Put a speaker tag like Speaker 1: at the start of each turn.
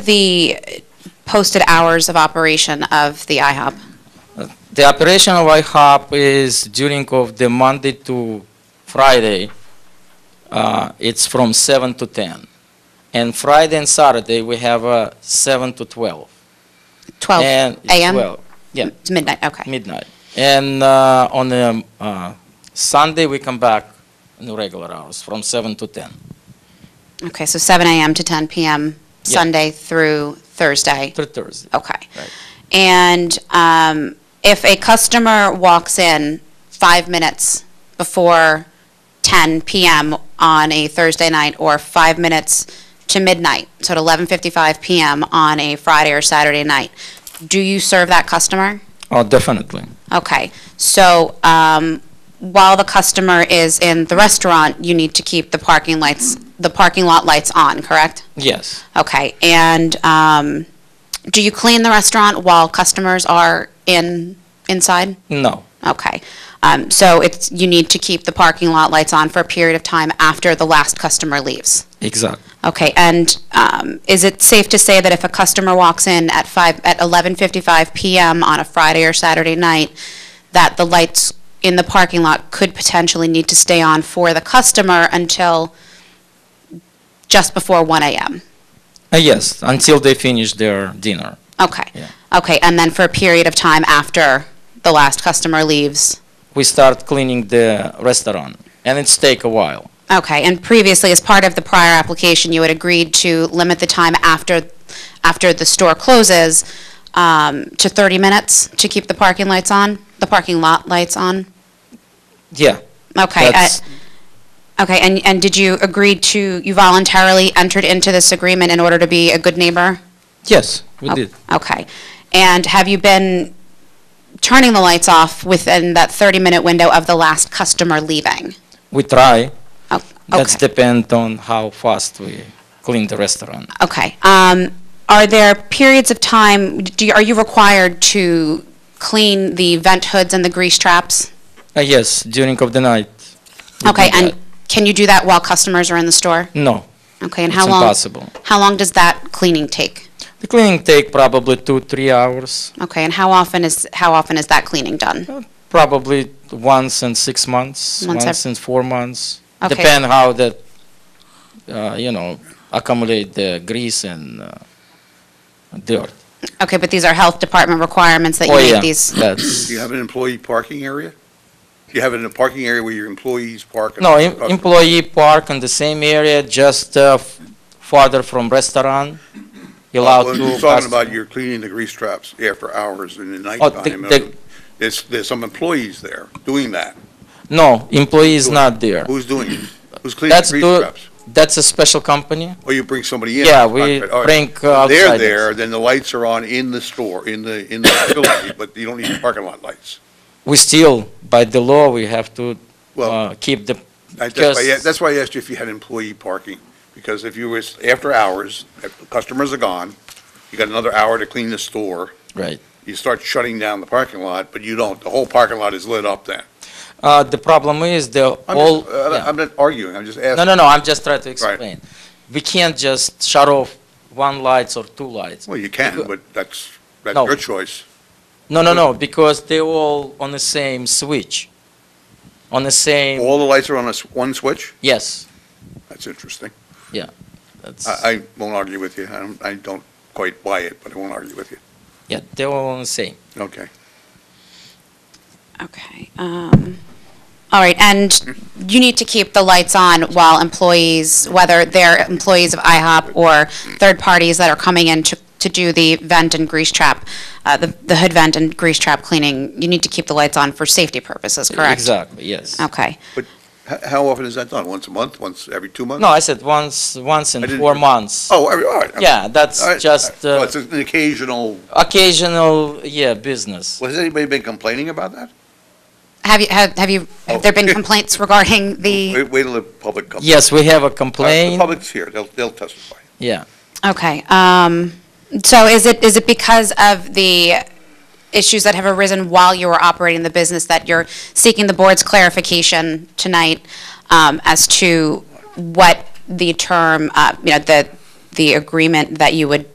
Speaker 1: the posted hours of operation of the IHOP?
Speaker 2: The operation of IHOP is during of the Monday to Friday. Uh, it's from seven to ten, and Friday and Saturday we have uh, seven to twelve.
Speaker 1: 12
Speaker 2: and it's
Speaker 1: a.m.?
Speaker 2: 12, yeah,
Speaker 1: To midnight, okay.
Speaker 2: midnight. And uh, on um, uh, Sunday we come back in the regular hours from seven to ten.
Speaker 1: Okay, so 7 a.m. to 10 p.m.,
Speaker 2: Yeah.
Speaker 1: Sunday through Thursday?
Speaker 2: Through Thursday.
Speaker 1: Okay.
Speaker 2: Right.
Speaker 1: And um, if a customer walks in five minutes before 10 p.m. on a Thursday night, or five minutes to midnight, so at 11:55 p.m. on a Friday or Saturday night, do you serve that customer?
Speaker 2: Oh, definitely.
Speaker 1: Okay, so um, while the customer is in the restaurant, you need to keep the parking lights, the parking lot lights on, correct?
Speaker 2: Yes.
Speaker 1: Okay, and um, do you clean the restaurant while customers are in, inside?
Speaker 2: No.
Speaker 1: Okay, um, so it's, you need to keep the parking lot lights on for a period of time after the last customer leaves?
Speaker 2: Exactly.
Speaker 1: Okay, and um, is it safe to say that if a customer walks in at five, at 11:55 PM on a Friday or Saturday night, that the lights in the parking lot could potentially need to stay on for the customer until just before 1 AM?
Speaker 2: Uh, yes, until they finish their dinner.
Speaker 1: Okay.
Speaker 2: Yeah.
Speaker 1: Okay, and then for a period of time after the last customer leaves?
Speaker 2: we start cleaning the restaurant and it's take a while
Speaker 1: Okay, and previously, as part of the prior application, you had agreed to limit the time after, after the store closes um, to 30 minutes to keep the parking lights on, the parking lot lights on?
Speaker 2: yeah
Speaker 1: Okay, uh,
Speaker 2: that's-
Speaker 1: okay, and, and did you agree to, you voluntarily entered into this agreement in order to be a good neighbor?
Speaker 2: yes we
Speaker 1: Oh,
Speaker 2: did
Speaker 1: Okay, and have you been turning the lights off within that 30-minute window of the last customer leaving?
Speaker 2: we try
Speaker 1: Oh, okay.
Speaker 2: that's depend on how fast we clean the restaurant
Speaker 1: Okay. Um, Are there periods of time, do you- are you required to clean the vent hoods and the grease traps?
Speaker 2: uh, yes during of the night we
Speaker 1: Okay,
Speaker 2: do
Speaker 1: and
Speaker 2: that.
Speaker 1: can you do that while customers are in the store?
Speaker 2: no
Speaker 1: Okay, and
Speaker 2: it's
Speaker 1: how long?
Speaker 2: impossible
Speaker 1: How long does that cleaning take?
Speaker 2: the cleaning take probably two three hours
Speaker 1: Okay, and how often is, how often is that cleaning done?
Speaker 2: probably once in six months
Speaker 1: Once
Speaker 2: once,
Speaker 1: ev-
Speaker 2: in four months
Speaker 1: Okay.
Speaker 2: depend how that uh, you know accumulate the grease and uh, dirt
Speaker 1: Okay, but these are health department requirements that you
Speaker 2: oh yeah
Speaker 1: make these?
Speaker 2: that's
Speaker 3: Do you have an employee parking area? Do you have a parking area where your employees park? and
Speaker 2: No,
Speaker 3: other
Speaker 2: em-
Speaker 3: customers?
Speaker 2: employee park in the same area, just uh, f- farther from restaurant.
Speaker 3: Oh, Well,
Speaker 2: Allowed
Speaker 3: you're
Speaker 2: to.
Speaker 3: Talking about you're cleaning the grease traps after hours in the
Speaker 2: Oh,
Speaker 3: nighttime.
Speaker 2: the-
Speaker 3: There's, there's some employees there doing that.
Speaker 2: No, employee is not there.
Speaker 3: Who's doing it? Who's cleaning the
Speaker 2: That's
Speaker 3: grease
Speaker 2: do-
Speaker 3: traps?
Speaker 2: That's a special company.
Speaker 3: Or you bring somebody in?
Speaker 2: Yeah, we
Speaker 3: All right.
Speaker 2: bring, uh,
Speaker 3: They're
Speaker 2: outsiders.
Speaker 3: there, then the lights are on in the store, in the, in the facility, but you don't need parking lot lights.
Speaker 2: We still, by the law, we have to
Speaker 3: Well,
Speaker 2: uh, keep the,
Speaker 3: I- That's why, I-
Speaker 2: Because-
Speaker 3: that's why I asked you if you had employee parking, because if you was, after hours, if the customers are gone, you got another hour to clean the store,
Speaker 2: right.
Speaker 3: you start shutting down the parking lot, but you don't, the whole parking lot is lit up then.
Speaker 2: Uh, The problem is the
Speaker 3: I'm
Speaker 2: all.
Speaker 3: just, uh,
Speaker 2: yeah.
Speaker 3: I'm not arguing, I'm just
Speaker 2: No,
Speaker 3: asking.
Speaker 2: no, no, I'm just trying to explain. We can't just shut off one lights or two lights.
Speaker 3: Well, you can, but that's, that's
Speaker 2: No.
Speaker 3: your choice.
Speaker 2: No, no, no, because they all on the same switch, on the same,
Speaker 3: All the lights are on a s one switch?
Speaker 2: yes.
Speaker 3: That's interesting.
Speaker 2: that's-
Speaker 3: I, I won't argue with you, I don't, I don't quite buy it, but I won't argue with you.
Speaker 2: Yeah, they were all the same.
Speaker 3: Okay.
Speaker 1: Okay. um, All right, and you need to keep the lights on while employees, whether they're employees of IHOP or third parties that are coming in to, to do the vent and grease trap, uh, the the hood vent and grease trap cleaning, you need to keep the lights on for safety purposes, correct? Um,
Speaker 2: Exactly, yes.
Speaker 1: Okay,
Speaker 3: How, how often is that done? Once a month, once every two months?
Speaker 2: No, I said once, once in
Speaker 3: I didn't-
Speaker 2: four months.
Speaker 3: Oh, every, all right. I'm-
Speaker 2: Yeah, that's
Speaker 3: all right,
Speaker 2: just
Speaker 3: all right.
Speaker 2: uh,
Speaker 3: Well, it's an occasional,
Speaker 2: occasional, yeah, business.
Speaker 3: well, has anybody been complaining about that?
Speaker 1: have you, have have you, have there been
Speaker 3: Oh.
Speaker 1: complaints regarding the,
Speaker 3: Wait, wait till the public comes.
Speaker 2: Yes, we have a
Speaker 3: All right, The
Speaker 2: complaint,
Speaker 3: public's here, they'll, they'll testify.
Speaker 2: yeah.
Speaker 1: okay. um, So is it, is it because of the issues that have arisen while you were operating the business that you're seeking the board's clarification tonight um, as to what the term, uh, you know, the, the agreement that you would